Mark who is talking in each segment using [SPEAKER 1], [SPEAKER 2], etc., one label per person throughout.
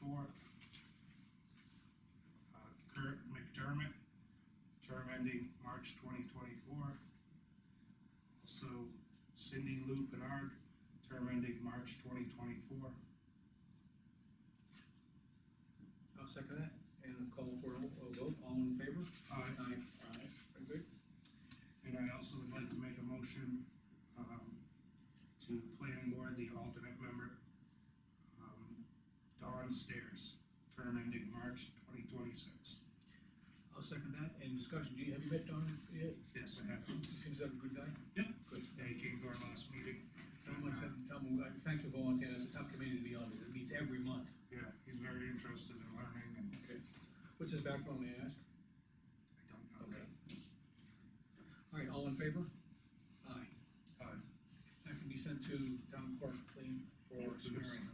[SPEAKER 1] uh, ending March twenty twenty-four. Also Cindy Lou Bernard, term ending March twenty twenty-four.
[SPEAKER 2] I'll second that, and call for a a vote, all in favor?
[SPEAKER 1] Aye.
[SPEAKER 2] Aye. Very
[SPEAKER 1] Uh,
[SPEAKER 2] good.
[SPEAKER 1] And I also would like to make a motion, um, to planning board, the alternate member, um, Dawn Stairs, term ending March twenty twenty-six.
[SPEAKER 2] I'll second that, and discussion, do you, have you met Don yet?
[SPEAKER 1] Yes, I have.
[SPEAKER 2] Seems like a good guy.
[SPEAKER 1] Yep.
[SPEAKER 2] Good.
[SPEAKER 1] Yeah, he came to our last meeting.
[SPEAKER 2] Tell him, I said- tell him, I thank you volunteering, it's a tough committee to be on, because it meets every month.
[SPEAKER 1] Yeah, he's very interested in learning and
[SPEAKER 2] Okay. What's his background, may I ask?
[SPEAKER 1] I don't know.
[SPEAKER 2] Okay. All right, all in favor? Aye.
[SPEAKER 1] Aye.
[SPEAKER 2] That can be sent to town clerk, clean for swearing.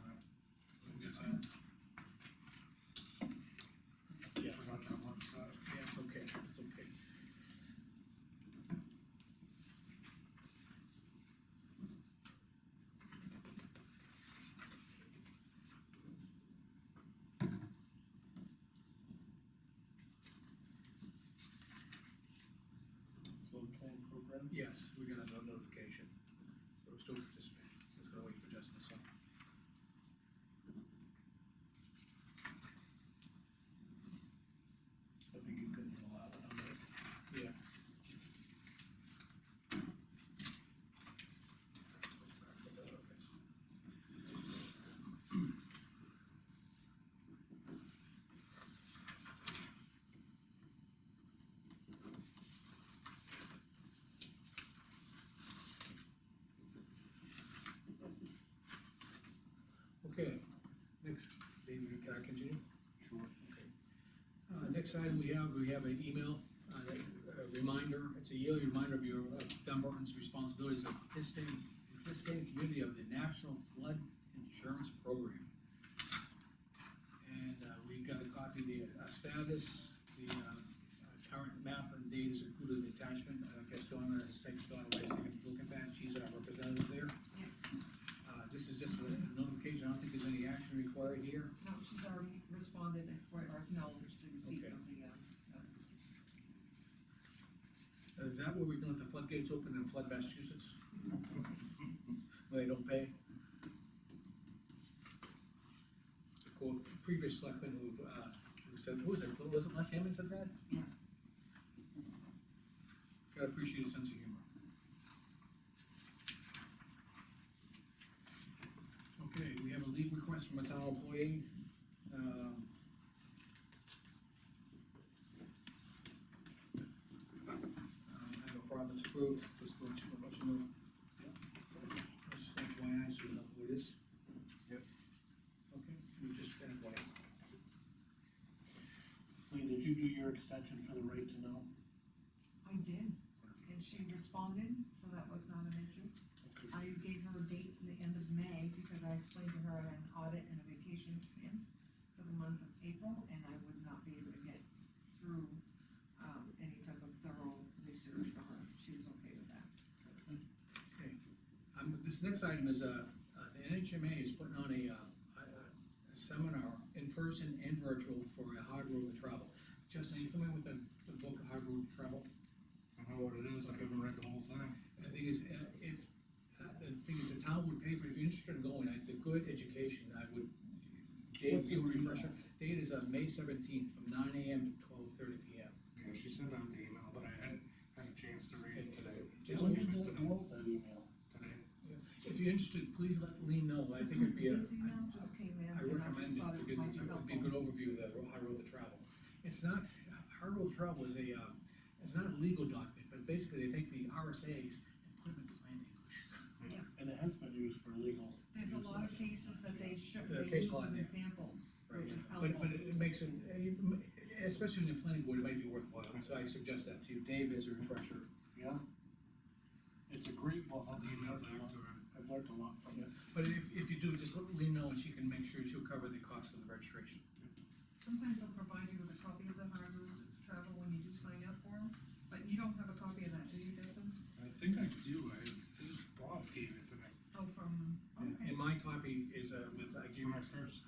[SPEAKER 1] Yeah, forgot that one side.
[SPEAKER 2] Yeah, it's okay, it's okay.
[SPEAKER 3] float plan program.
[SPEAKER 2] Yes, we got a no- notification, so we're still participating, so it's gonna wait for Justin, so.
[SPEAKER 3] I think you could allow it, I'm like,
[SPEAKER 2] Yeah. Okay, next, David, can I continue?
[SPEAKER 1] Sure.
[SPEAKER 2] Okay. Uh, next item we have, we have an email, uh, that- a reminder, it's a yearly reminder of your, of Dunbarton's responsibilities of participating, participating community of the National Flood Insurance Program. And, uh, we got a copy of the uh, status, the, uh, uh, current map and data is included in the attachment, uh, I guess Donna has taken, Donna Rice, taken a look at that, she's our representative there. Uh, this is just a notification, I don't think there's any action required here.
[SPEAKER 4] No, she's already responded and, or acknowledged the receipt
[SPEAKER 2] Okay.
[SPEAKER 4] of the, uh, notice.
[SPEAKER 2] Is that where we're gonna let the floodgates open and flood Massachusetts? Where They don't pay? The co- previous selectman who, uh, who said, who was it, was it Les Hammond said that?
[SPEAKER 4] Yeah.
[SPEAKER 2] Gotta appreciate his sense of humor. Okay, we have a leave request from a town employee, um, Um, I have a province approved, just to let you, let you know. Just FYI, so you know who it is.
[SPEAKER 3] Yep.
[SPEAKER 2] Okay, we just FYI.
[SPEAKER 3] Lee, did you do your extension for the right to know?
[SPEAKER 4] I did, and she responded, so that was not an issue.
[SPEAKER 3] Okay.
[SPEAKER 4] I gave her a date in the end of May, because I explained to her I had an audit and a vacation plan for the month of April, and I would not be able to get through, um, any type of thorough research for her, she was okay with that.
[SPEAKER 2] Okay. Um, this next item is, uh, uh, the NHMA is putting on a, uh, a- a seminar in person and virtual for a hard road to travel. Justin, are you familiar with the, the book Hard Road to Travel?
[SPEAKER 1] I know what it is, I haven't read the whole thing.
[SPEAKER 2] The thing is, uh, if, uh, the thing is, the town would pay for it, if you're interested in going, it's a good education, I would. Dave,
[SPEAKER 3] What's
[SPEAKER 2] you
[SPEAKER 3] the-
[SPEAKER 2] refresher, date is on May seventeenth, from nine AM to twelve thirty PM.
[SPEAKER 1] Yeah, she sent out the email, but I hadn't had a chance to read it today.
[SPEAKER 2] Just
[SPEAKER 3] When
[SPEAKER 2] leave
[SPEAKER 3] did
[SPEAKER 1] it
[SPEAKER 3] that,
[SPEAKER 1] to-
[SPEAKER 3] you wrote that email?
[SPEAKER 1] Today,
[SPEAKER 2] If you're interested, please let Lean know, I think it'd be a.
[SPEAKER 4] This email just came in,
[SPEAKER 2] I
[SPEAKER 4] and I
[SPEAKER 2] recommend
[SPEAKER 4] just thought
[SPEAKER 2] it
[SPEAKER 4] it
[SPEAKER 2] because
[SPEAKER 4] might
[SPEAKER 2] it's, it
[SPEAKER 4] be
[SPEAKER 2] would be a
[SPEAKER 4] helpful.
[SPEAKER 2] good overview of the hard road to travel. It's not, hard road to travel is a, uh, it's not a legal document, but basically they take the RSAs and put them into plain English.
[SPEAKER 3] And it has been used for legal.
[SPEAKER 4] There's a lot of cases that they show,
[SPEAKER 2] The
[SPEAKER 4] they
[SPEAKER 2] case
[SPEAKER 4] use
[SPEAKER 2] law in
[SPEAKER 4] as
[SPEAKER 2] there.
[SPEAKER 4] examples, which is
[SPEAKER 2] But,
[SPEAKER 4] helpful.
[SPEAKER 2] but it makes it, especially in the planning board, it might be worthwhile, so I suggest that to you, Dave, as a refresher.
[SPEAKER 3] Yeah. It's a great book,
[SPEAKER 1] I'll
[SPEAKER 3] I've learned
[SPEAKER 1] email
[SPEAKER 3] a
[SPEAKER 1] back
[SPEAKER 3] lot,
[SPEAKER 1] to her.
[SPEAKER 3] I've learned a lot from it.
[SPEAKER 2] But if, if you do, just let Lean know, and she can make sure she'll cover the cost of the registration.
[SPEAKER 4] Sometimes they'll provide you with a copy of the hard route travel when you do sign up for them, but you don't have a copy of that, do you, Jason?
[SPEAKER 1] I think I do, I, this Bob gave it to me,
[SPEAKER 4] Oh, from,
[SPEAKER 2] And-
[SPEAKER 4] okay,
[SPEAKER 2] And my copy is, uh, with, I
[SPEAKER 1] It's
[SPEAKER 2] gave
[SPEAKER 1] my first